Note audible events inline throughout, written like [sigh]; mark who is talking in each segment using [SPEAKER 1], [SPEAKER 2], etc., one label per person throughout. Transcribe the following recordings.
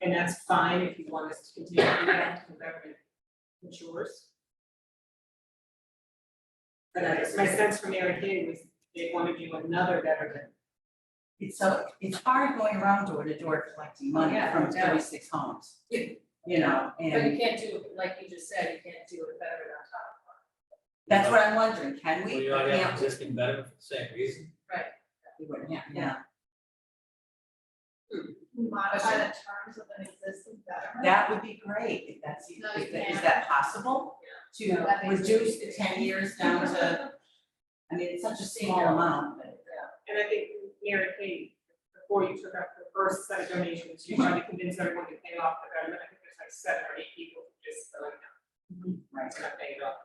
[SPEAKER 1] And that's fine if you want us to continue to do that until government matures. But I, my sense from Aaron Hay was they want to do another veteran.
[SPEAKER 2] It's so, it's hard going around door to door collecting money
[SPEAKER 3] Yeah,
[SPEAKER 2] from
[SPEAKER 3] no doubt.
[SPEAKER 2] thirty-six homes.
[SPEAKER 1] Yeah.
[SPEAKER 2] You know,
[SPEAKER 3] But you
[SPEAKER 2] and
[SPEAKER 3] can't do, like you just said, you can't do it better on top of it.
[SPEAKER 2] that's what I'm wondering, can
[SPEAKER 4] Well,
[SPEAKER 2] we?
[SPEAKER 4] you already have an
[SPEAKER 2] Can't we?
[SPEAKER 4] existing veteran for the same reason.
[SPEAKER 2] We wouldn't have- Yeah,
[SPEAKER 5] modify the terms of an existing veteran.
[SPEAKER 2] that would be great, if that's, is
[SPEAKER 5] No, you
[SPEAKER 2] that- is
[SPEAKER 5] can't.
[SPEAKER 2] that possible?
[SPEAKER 5] No,
[SPEAKER 2] To
[SPEAKER 5] that makes
[SPEAKER 2] reduce the
[SPEAKER 5] sense.
[SPEAKER 2] ten years down to, I mean, it's such a small amount, but.
[SPEAKER 1] And I think Mary Kay, before you took out the first set of donations, you tried to convince everyone to pay off the government. I think there's like seven or eight people who just are like, no,
[SPEAKER 2] Right.
[SPEAKER 1] it's not paying it off.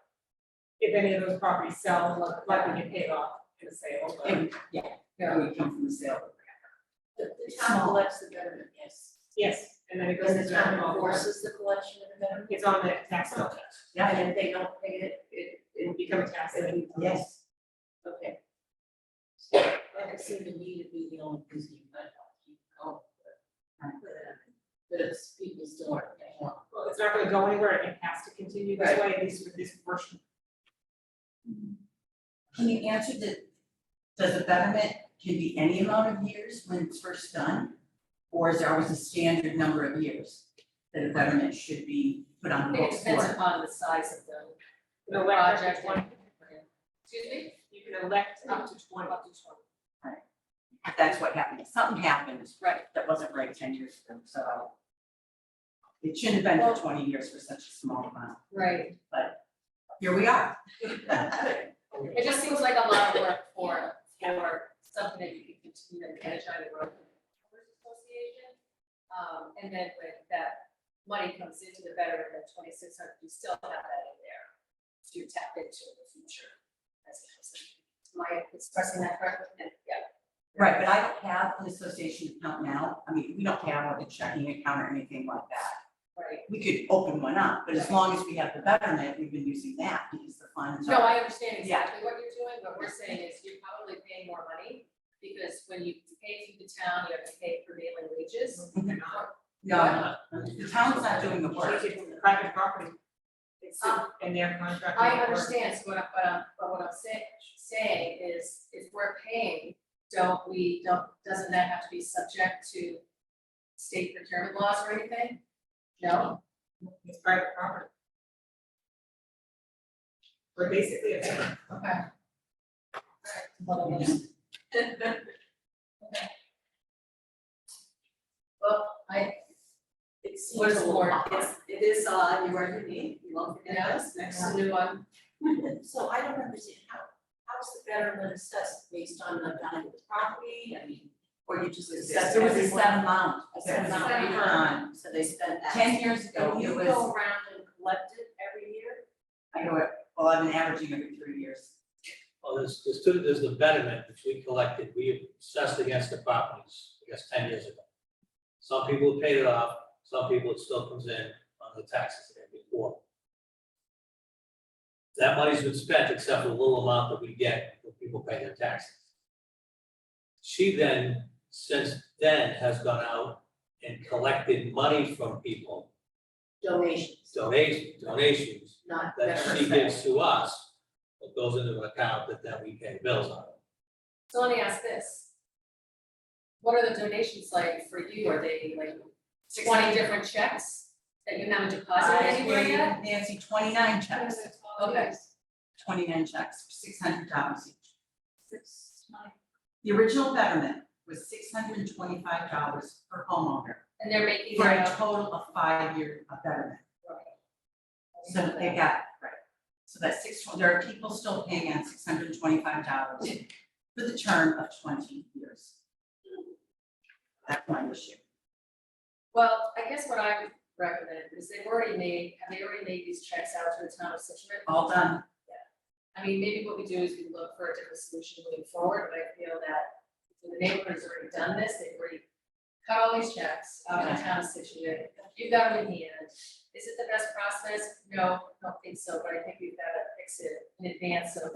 [SPEAKER 1] If any of those properties sell, like- like we get paid off in a sale, but
[SPEAKER 2] And, yeah, that would come from the sale.
[SPEAKER 3] The, the town collects the betterment, yes.
[SPEAKER 1] yes, and then it goes
[SPEAKER 3] Because
[SPEAKER 1] into
[SPEAKER 3] the town
[SPEAKER 1] general force.
[SPEAKER 3] enforces the collection of the betterment.
[SPEAKER 1] It's on the tax bill.
[SPEAKER 2] Yeah,
[SPEAKER 3] And if they don't pay it, it,
[SPEAKER 1] It will become a tax. lien.
[SPEAKER 2] yes,
[SPEAKER 3] okay. That would seem to me to be the only reason you might want to keep going. But it's, people still aren't paying off.
[SPEAKER 1] Well, it's not gonna go anywhere, it has to continue this way, at least with this portion.
[SPEAKER 2] can you answer the, does a betterment can be any amount of years when it's first done? Or is there always a standard number of years that a betterment should be put on the
[SPEAKER 3] It
[SPEAKER 2] books
[SPEAKER 3] depends
[SPEAKER 2] for?
[SPEAKER 3] upon the size of the
[SPEAKER 1] The
[SPEAKER 3] project.
[SPEAKER 1] electric one,
[SPEAKER 3] Excuse me?
[SPEAKER 1] you can elect up to twenty.
[SPEAKER 3] Up to twenty.
[SPEAKER 2] That's what happened, something happened
[SPEAKER 3] Right.
[SPEAKER 2] that wasn't right ten years ago, so. It shouldn't have been for twenty years for such a small amount,
[SPEAKER 3] Right.
[SPEAKER 2] here we are.
[SPEAKER 3] It just seems like a lot of work for, for something that you can continue to manage on the road Owners association. Um, and then when that money comes into the veteran, that twenty-six hundred, you still have that in there to tap into in the future. As a person. Am I expressing that correctly? Yeah.
[SPEAKER 2] Right, but I don't have an association account now, I mean, we don't have a checking account or anything like that.
[SPEAKER 3] Right.
[SPEAKER 2] we could open one up, but as long as we have the betterment, we've been using that because the funds
[SPEAKER 3] No,
[SPEAKER 2] are.
[SPEAKER 3] I understand
[SPEAKER 2] Yeah.
[SPEAKER 3] exactly what you're doing, what we're saying is you're probably paying more money, because when you pay through the town, you have to pay prevailing wages.
[SPEAKER 2] Mhm.
[SPEAKER 3] Or-
[SPEAKER 2] No, the town's not doing the work.
[SPEAKER 1] Change it from private property. It's
[SPEAKER 3] Um,
[SPEAKER 1] in their contract.
[SPEAKER 3] I understand, so what I- but, I'm- but what I'm saying, saying is, if we're paying, don't we, don't, doesn't that have to be subject to state procurement laws or anything? No,
[SPEAKER 1] It's private property. We're basically a tenant.
[SPEAKER 3] okay. Well, then we'll- Okay. Well, I,
[SPEAKER 6] It
[SPEAKER 3] What is
[SPEAKER 6] seems
[SPEAKER 3] the
[SPEAKER 6] more,
[SPEAKER 3] warrant?
[SPEAKER 6] it's, it is, uh, you are unique, you won't forget
[SPEAKER 3] Yeah.
[SPEAKER 6] this next.
[SPEAKER 3] it's a new one,
[SPEAKER 6] [laughs] So I don't understand how, how is the betterment assessed based on the value of the property, I mean, or you just assess.
[SPEAKER 2] There was a
[SPEAKER 6] everyone
[SPEAKER 2] set amount,
[SPEAKER 6] A set amount
[SPEAKER 3] Set
[SPEAKER 6] of
[SPEAKER 3] amount.
[SPEAKER 6] time, so they spend that.
[SPEAKER 2] ten years ago,
[SPEAKER 6] And
[SPEAKER 2] it
[SPEAKER 6] you
[SPEAKER 2] was,
[SPEAKER 6] go around and collect it every year?
[SPEAKER 2] I know it, well, I've been averaging every three years.
[SPEAKER 4] Well, there's, there's two, there's the betterment which we collected, we assessed against the properties, I guess, ten years ago. Some people paid it off, some people it still comes in on the taxes they had before. That money's been spent except for the little amount that we get when people pay their taxes. She then, since then, has gone out and collected money from people,
[SPEAKER 6] Donations,
[SPEAKER 4] donations, donations,
[SPEAKER 6] not
[SPEAKER 4] that
[SPEAKER 6] better
[SPEAKER 4] she
[SPEAKER 6] assessed.
[SPEAKER 4] gives to us, that goes into an account that then we pay bills on.
[SPEAKER 3] so let me ask this. What are the donations like for you, are they like twenty different checks that you haven't deposited
[SPEAKER 2] I
[SPEAKER 3] anywhere yet?
[SPEAKER 2] gave Nancy twenty-nine checks,
[SPEAKER 3] Okay,
[SPEAKER 2] twenty-nine checks, six hundred dollars each.
[SPEAKER 5] Six, nine.
[SPEAKER 2] The original betterment was six hundred and twenty-five dollars per homeowner
[SPEAKER 3] and they're making
[SPEAKER 2] for
[SPEAKER 3] their
[SPEAKER 2] a
[SPEAKER 3] own.
[SPEAKER 2] total of five-year betterment. So they got, right, so that six, there are people still paying out six hundred and twenty-five dollars for the term of twenty years. That's my issue.
[SPEAKER 3] Well, I guess what I would recommend is they've already made, have they already made these checks out to the town of Situate?
[SPEAKER 2] All done,
[SPEAKER 3] I mean, maybe what we do is we look for a different solution moving forward, but I feel that the neighborhood has already done this, they've already cut all these checks out of the town of Situate. You've got them in hand. Is it the best process? No, I don't think so, but I think we've got to fix it in advance of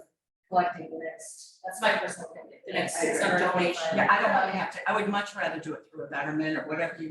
[SPEAKER 3] collecting the next, that's my personal opinion.
[SPEAKER 6] The next six hundred
[SPEAKER 3] $625.
[SPEAKER 6] donation.
[SPEAKER 2] yeah, I don't wanna have to, I would much rather do it through a betterment or whatever you